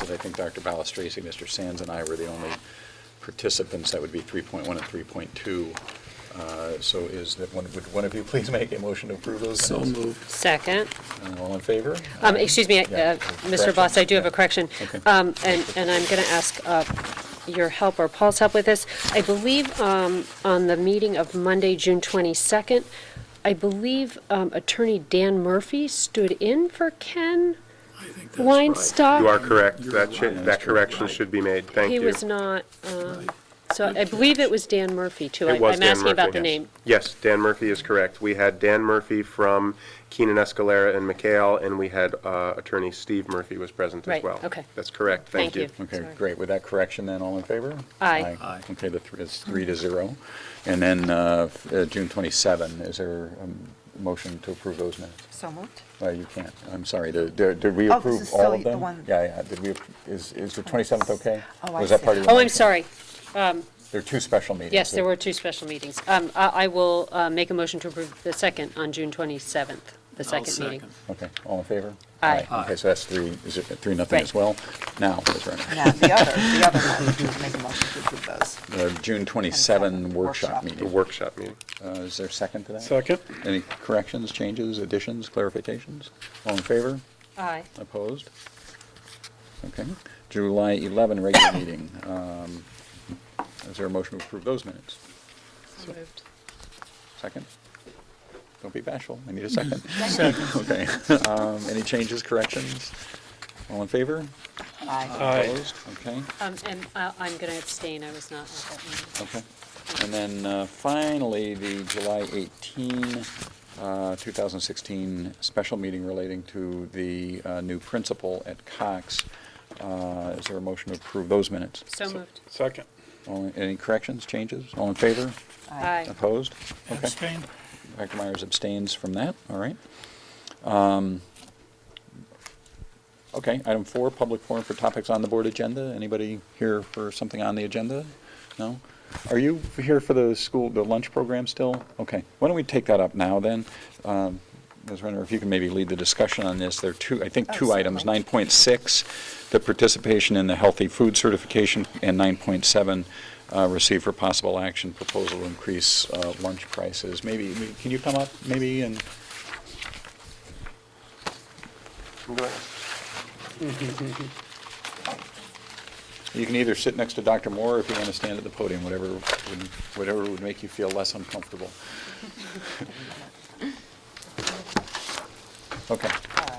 that I think Dr. Balistracci, Mr. Sands, and I were the only participants. That would be 3.1 and 3.2. Uh, So is that, one? would one of you please make a motion to approve those? So minutes? moved. Second. Uh, All in favor? Um, Excuse me, uh, Yeah, Mr. Voss, I do have a correction. Okay. Um, And, and I'm going to ask uh, your help or Paul's help with this. I believe um, on the meeting of Monday, June 22nd, I believe um, Attorney Dan Murphy stood in for Ken I think that's right. Weinstock. You are correct. You're That should, right. that correction should be made. Thank He you. was not, um, Right. so I believe it was Dan Murphy, too. I- It was Dan I'm asking about Murphy. the name. Yes, Dan Murphy is correct. We had Dan Murphy from Keenan Escalera and McHale, and we had uh, Attorney Steve Murphy was present as Right, well. okay. That's correct. Thank Thank you. you. Okay, Sorry. great. With that correction then, all in favor? Aye. Aye. Okay, the, thr- it's three to zero. And then uh, f- uh, June 27, is there a motion to approve those minutes? So moved. Uh, You can't, I'm sorry, The- the- did we Oh, this approve is all still of the them? one- Yeah, yeah, did we, ap- is, is the 27th okay? Oh, I Was that see. part of your Oh, motion? I'm sorry. There are two special meetings. Yes, there that- were two special meetings. Um, I I will uh, make a motion to approve the second on June 27th, the I'll second meeting. Okay, all in favor? Aye. Okay, so that's three, is it three, nothing Right. as well? Now, that's right. Now, the other, the other one, we make a motion to approve those. Uh, June 27 workshop Workshop. The meeting. workshop meeting. Uh, Is there a second to that? Second. Any corrections, changes, additions, clarifications? All in favor? Aye. Opposed? Okay. July 11 regular meeting. Um, Is there a motion to approve those minutes? So moved. Second? Don't be bashful. I need a second. Okay. Um, Any changes, corrections? All in favor? Aye. Aye. Opposed? Okay. Um, And I- I'm going to abstain, I was not at that meeting. Okay. And then uh, finally, the July 18, uh, 2016 special meeting relating to the uh, new principal at Cox. Uh, Is there a motion to approve those minutes? So moved. Second. All- Any corrections, changes? All in favor? Aye. Opposed? Okay. Abstain. Dr. Myers abstains from that, all right. Um, Okay, item four, public forum for topics on the board agenda. Anybody here for something on the agenda? No? Are you here for the school, the lunch program still? Okay, why don't we take that up now then? Um, Ms. Renner, if you can maybe lead the discussion on this, there are two, I think, Oh, two items. certainly. 9.6, the participation in the healthy food certification, and 9.7, uh, receive for possible action proposal to increase uh, lunch prices. Maybe, can you come up, maybe, and, Go ahead. You can either sit next to Dr. Moore, or if you want to stand at the podium, whatever, would- whatever would make you feel less uncomfortable. Okay, All right.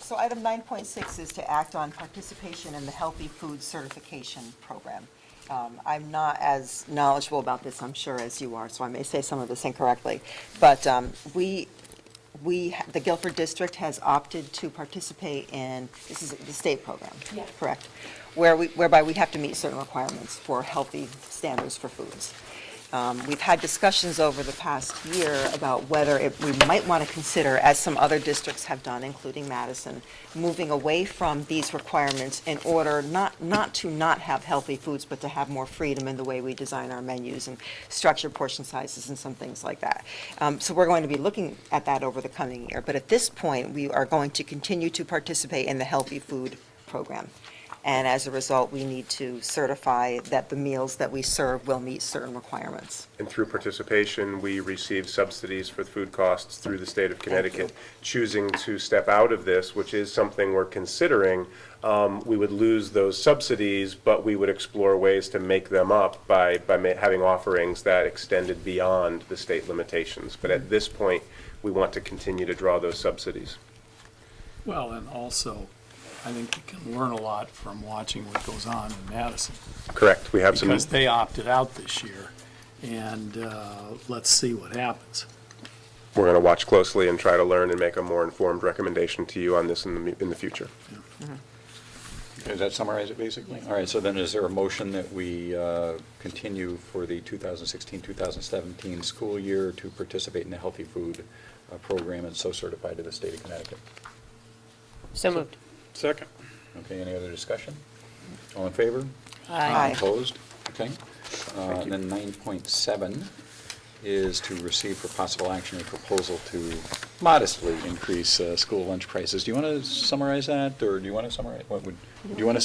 So item 9.6 is to act on participation in the Healthy Food Certification Program. Um, I'm not as knowledgeable about this, I'm sure, as you are, so I may say some of this incorrectly. But um, we, we, the Guilford District has opted to participate in, this is the state program, correct? Where we, whereby we have to meet certain requirements for healthy standards for foods. Um, We've had discussions over the past year about whether it- we might want to consider, as some other districts have done, including Madison, moving away from these requirements in order not, not to not have healthy foods, but to have more freedom in the way we design our menus and structure portion sizes and some things like that. Um, So we're going to be looking at that over the coming year. But at this point, we are going to continue to participate in the healthy food program. And as a result, we need to certify that the meals that we serve will meet certain requirements. And through participation, we receive subsidies for food costs through the state of Connecticut. Choosing to step out of this, which is something we're considering, um, we would lose those subsidies, but we would explore ways to make them up by, by ma- having offerings that extended beyond the state limitations. But at this point, we want to continue to draw those subsidies. Well, and also, I think you can learn a lot from watching what goes on in Madison. Correct, we have some. Because they opted out this year, and uh, let's see what happens. we're going to watch closely and try to learn and make a more informed recommendation to you on this in the, mu- in the future. does that summarize it basically? All right, so then is there a motion that we uh, continue for the 2016-2017 school year to participate in the healthy food uh, program and so certified to the state of Connecticut? So moved. Second. Okay, any other discussion? All in favor? Aye. Opposed? Okay. Uh, And then 9.7 is to receive for possible action a proposal to modestly increase uh, school lunch prices. Do you want to summarize that, or do you want to summarize, what would, do you want to